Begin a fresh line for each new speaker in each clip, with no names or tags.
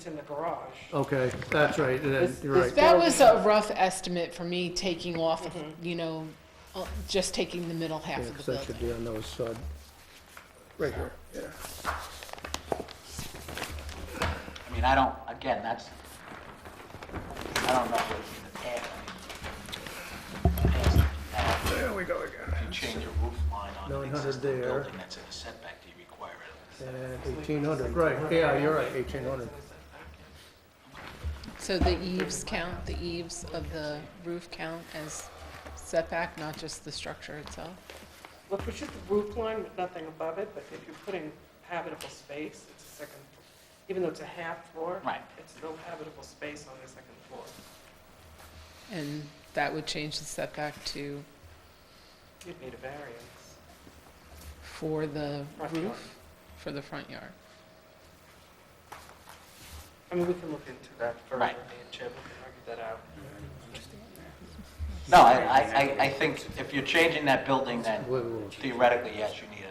It's in the garage.
Okay, that's right, and then, you're right.
That was a rough estimate for me, taking off, of, you know, uh, just taking the middle half
Yeah,
of
'cause
the
that should
building.
be on those, uh, right here, yeah.
I mean, I don't, again, that's, I don't know what in the past. I mean, in the past, if you
There we go again.
have- If you change a roof line on an
900
existing
there.
building that's in a setback, do you require it?
And eighteen hundred, right, yeah, you're right, eighteen hundred.
So the eaves count, the eaves of the roof count as setback, not just the structure itself?
Look, it's just the roof line with nothing above it, but if you're putting habitable space, it's a second, even though it's a half floor.
Right.
It's still habitable space on the second floor.
And that would change the setback to,
You'd need a variance.
for the
Front yard.
roof, for the front yard.
I mean, we can look into that further, me
Right.
and Chip, we can argue that out.
No, I, I, I- I think if you're changing that building, then
Wait, wait, wait.
theoretically, yes, you need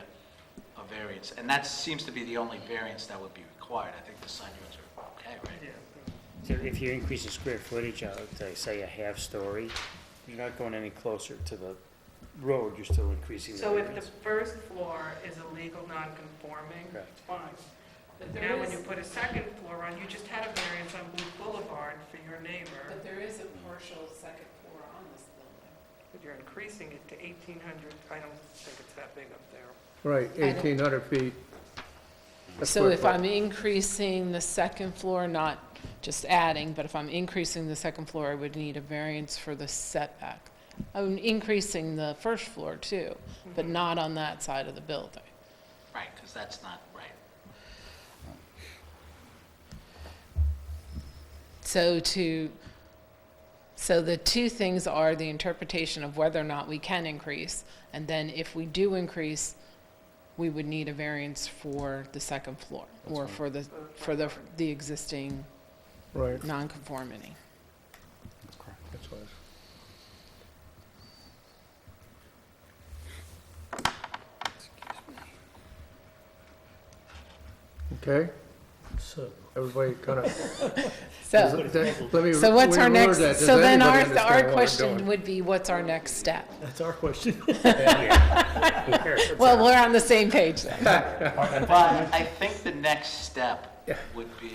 a, a variance. And that seems to be the only variance that would be required. I think the sign units are okay, right?
So if you increase the square footage, uh, to say a half story, you're not going any closer to the road, you're still increasing the
So if the
variance.
first floor is illegal non-conforming,
Correct.
it's fine. But now when you put a second floor on, you just had a variance on Blue Boulevard for your neighbor,
there is a partial second floor on this building.
but you're increasing it to eighteen hundred, I don't think it's that big up there.
Right,
don't-
eighteen hundred feet. A
So
square
if
foot.
I'm increasing the second floor, not just adding, but if I'm increasing the second floor, I would need a variance for the setback. I'm increasing the first floor too, but not on that side of the building.
Right, because that's not right.
So to, so the two things are the interpretation of whether or not we can increase, and then if we do increase, we would need a variance for the second floor, or for the, for the, the existing
Right,
nonconformity.
that's what I was- Okay,
So,
everybody kind of,
So.
let me.
So what's
reword
our next,
that. Does
so then
anybody
our,
understand what
our
I'm
question
doing?
would be, what's our next step?
that's our question.
Well, we're on the same page then.
But I think the next step would be,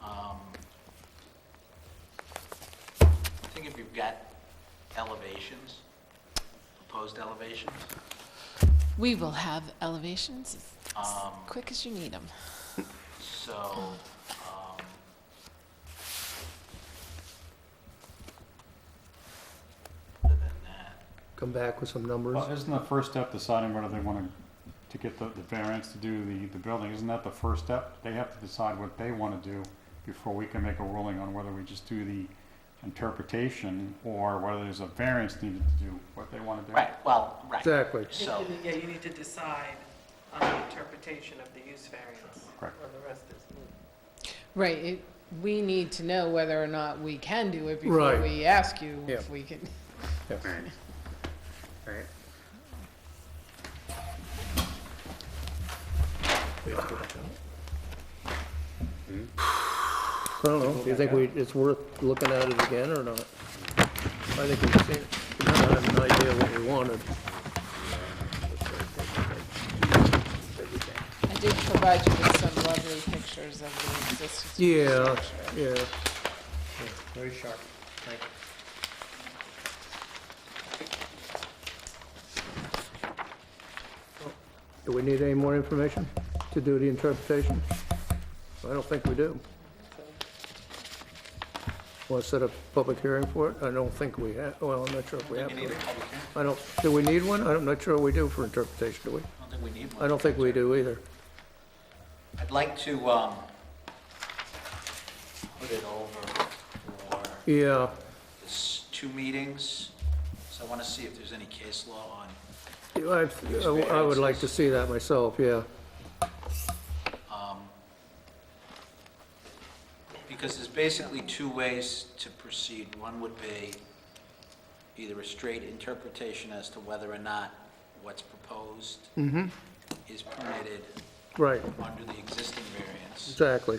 um, I think if you've got elevations, proposed elevations,
We will have elevations as
Um,
quick as you need them.
so, um, other than that,
Come back with some numbers.
Well, isn't the first step deciding whether they want to, to get the, the variance to do the, the building, isn't that the first step? They have to decide what they want to do before we can make a ruling on whether we just do the interpretation or whether there's a variance needed to do what they want to do.
right, well, right,
Exactly.
so,
Yeah, you need to decide on the interpretation of the use variance.
Correct.
Or the rest is
Right, it- we need to know whether or not we can do it before
Right.
we ask you if
Yeah.
we can.
Right.
I don't know, do you think we, it's worth looking at it again or not? I think we've seen, we kind of have an idea what we wanted.
I did provide you with some lovely pictures of the existing.
Yeah, yeah.
Very sharp, thank you.
Do we need any more information to do the interpretation? I don't think we do. Want to set a public hearing for it? I don't think we have, well, I'm not sure if we have.
you need a
one.
public hearing?
I don't, do we need one? I'm not sure we do for interpretation, do we?
I don't think we need one.
I don't think we do either.
I'd like to, um, put it over for
Yeah,
this two meetings, so I want to see if there's any case law on,
I, I would like to see that myself, yeah.
because there's basically two ways to proceed. One would be either a straight interpretation as to whether or not what's proposed is permitted
Right,
under the existing variance,
exactly.